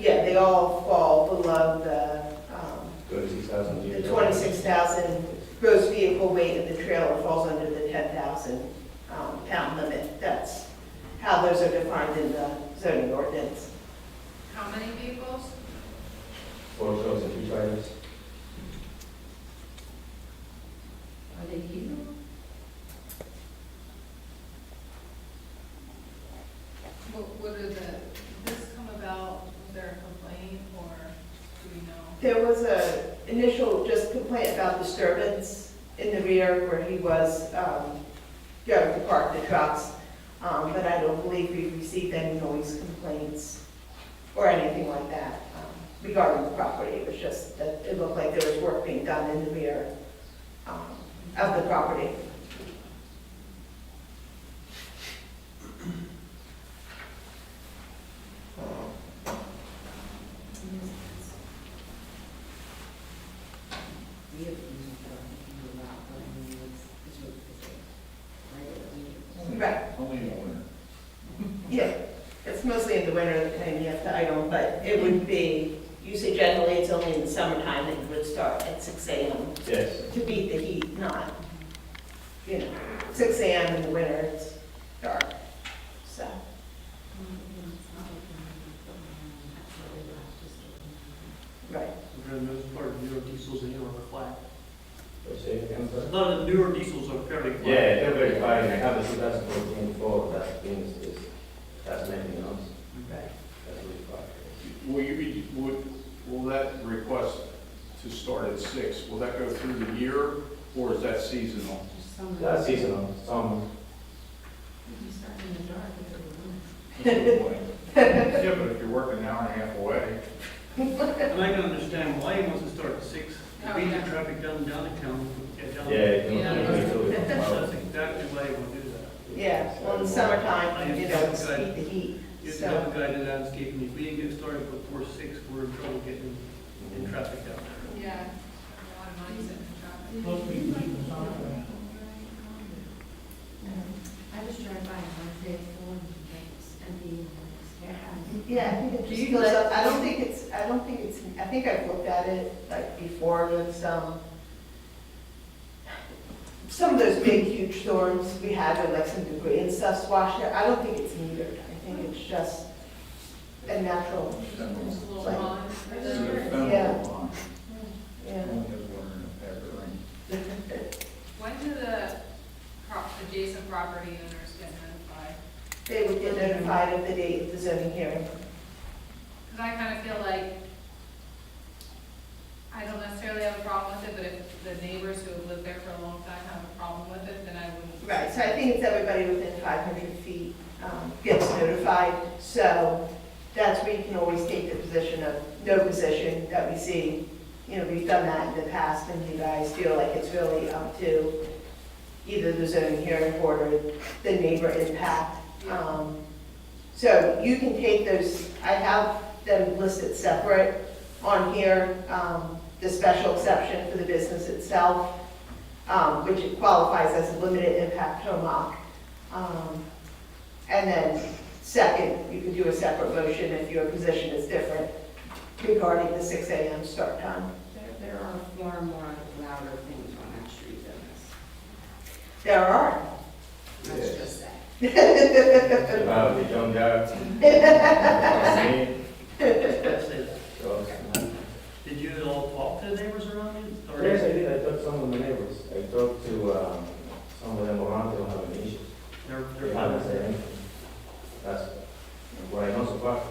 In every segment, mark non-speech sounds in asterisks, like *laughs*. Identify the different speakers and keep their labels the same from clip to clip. Speaker 1: they all fall below the, um,
Speaker 2: Thirty thousand
Speaker 1: the
Speaker 2: years.
Speaker 1: twenty-six thousand gross vehicle weight of the trailer falls under the ten thousand um, pound limit. That's how those are defined in the zoning ordinance.
Speaker 3: How many vehicles?
Speaker 2: Four trucks and two trailers.
Speaker 3: Are they here? What, what are the, did this come about, was there a complaint or do we know?
Speaker 1: There was a initial just complaint about disturbance in the rear where he was um, going to park the trucks, Um, but I don't believe we received any noise complaints or anything like that um, regarding the property. It was just that it looked like there was work being done in the rear um, of the property.
Speaker 4: We have used it a lot, but I mean, it's, it's what it's like.
Speaker 1: Right.
Speaker 5: Only in the winter.
Speaker 1: Yeah, it's mostly in the winter time you have to idle, but it would be, usually generally it's only in the summertime that it would start at six AM
Speaker 2: Yes.
Speaker 1: to beat the heat, not, you know, six AM in the winter, it's dark, so. Right,
Speaker 6: For the most part, newer diesels in here are flat.
Speaker 2: Let's see, again,
Speaker 6: A
Speaker 2: sir.
Speaker 6: lot of the newer diesels are fairly flat.
Speaker 2: Yeah, they're very fine, I have a two thousand fourteen Ford, that's been, is, that's nothing else,
Speaker 1: right.
Speaker 2: that's really fine.
Speaker 5: Will you be, would, will that request to start at six, will that go through the year, or is that seasonal?
Speaker 2: That's seasonal, some,
Speaker 4: You start in the dark, it's a room.
Speaker 5: Yeah, but if you're working an hour and a half away,
Speaker 6: And I can understand why he wants to start at six, to beat the traffic down downtown, get down.
Speaker 2: yeah. it don't-
Speaker 3: Yeah.
Speaker 2: it don't really
Speaker 6: That's
Speaker 2: come
Speaker 6: *laughs*
Speaker 2: out.
Speaker 6: exactly why he would do that.
Speaker 1: Yeah, well, in the summertime, you know, it's beat the heat,
Speaker 6: You have to
Speaker 1: so,
Speaker 6: have a guy to landscape, and if we didn't get started before six, we're in trouble getting in traffic down there.
Speaker 3: Yeah. A lot of money's in the traffic.
Speaker 4: I just drive by and I say, oh, thanks, and the, yeah.
Speaker 1: yeah, I think it
Speaker 4: Do
Speaker 1: just
Speaker 4: you
Speaker 1: goes
Speaker 4: let-
Speaker 1: up, I don't think it's, I don't think it's, I think I've looked at it like before with some, some of those big huge storms we had with like some debris and stuff squashed there, I don't think it's metered, I think it's just a natural,
Speaker 3: There's a little
Speaker 1: Like-
Speaker 3: pond.
Speaker 5: it's a
Speaker 1: Yeah.
Speaker 5: federal line.
Speaker 1: yeah.
Speaker 5: Only has water in it, ever rain.
Speaker 3: When do the pro- adjacent property owners get notified?
Speaker 1: They would get notified of the date of the zoning hearing.
Speaker 3: Because I kind of feel like, I don't necessarily have a problem with it, but if the neighbors who have lived there for a long time have a problem with it, then I wouldn't.
Speaker 1: Right, so I think it's everybody within 500 feet um, gets notified, so that's where you can always take the position of no position that we see. You know, we've done that in the past, and you guys feel like it's really up to either the zoning hearing board or the neighbor impact. Um, So you can take those, I have them listed separate on here, um, the special exception for the business itself, um, which it qualifies as a limited impact home Um And then, second, you can do a separate motion if your position is different regarding the 6 AM start time.
Speaker 4: There, there are far more louder things on that street than this,
Speaker 1: There are.
Speaker 4: let's just say.
Speaker 2: About the young guy. Me,
Speaker 6: That's it.
Speaker 2: so-
Speaker 6: Did you at all talk to the neighbors around you? Or-
Speaker 2: Yes, I did, I talked to some of my neighbors, I talked to, um, some of them around, they don't have any issues.
Speaker 6: They're,
Speaker 2: They
Speaker 6: they're.
Speaker 2: haven't said anything. That's what I know so far.
Speaker 4: At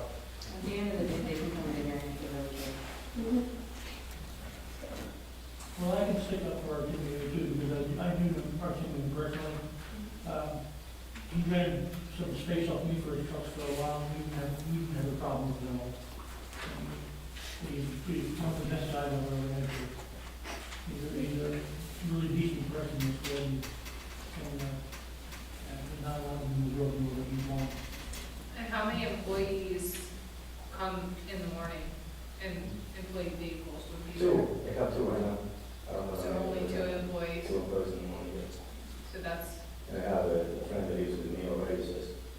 Speaker 4: the end of the day, they can come in there and give it
Speaker 7: Well, I can stick up for our DBA too, because I, I knew the person personally. Um, He rented some space off me for his trucks for a while, we didn't have, we didn't have a problem with them. He, he, on the best side of our relationship. He's a, he's a really decent person, as well, and, and, uh, and not a lot of them in the world.
Speaker 2: uh,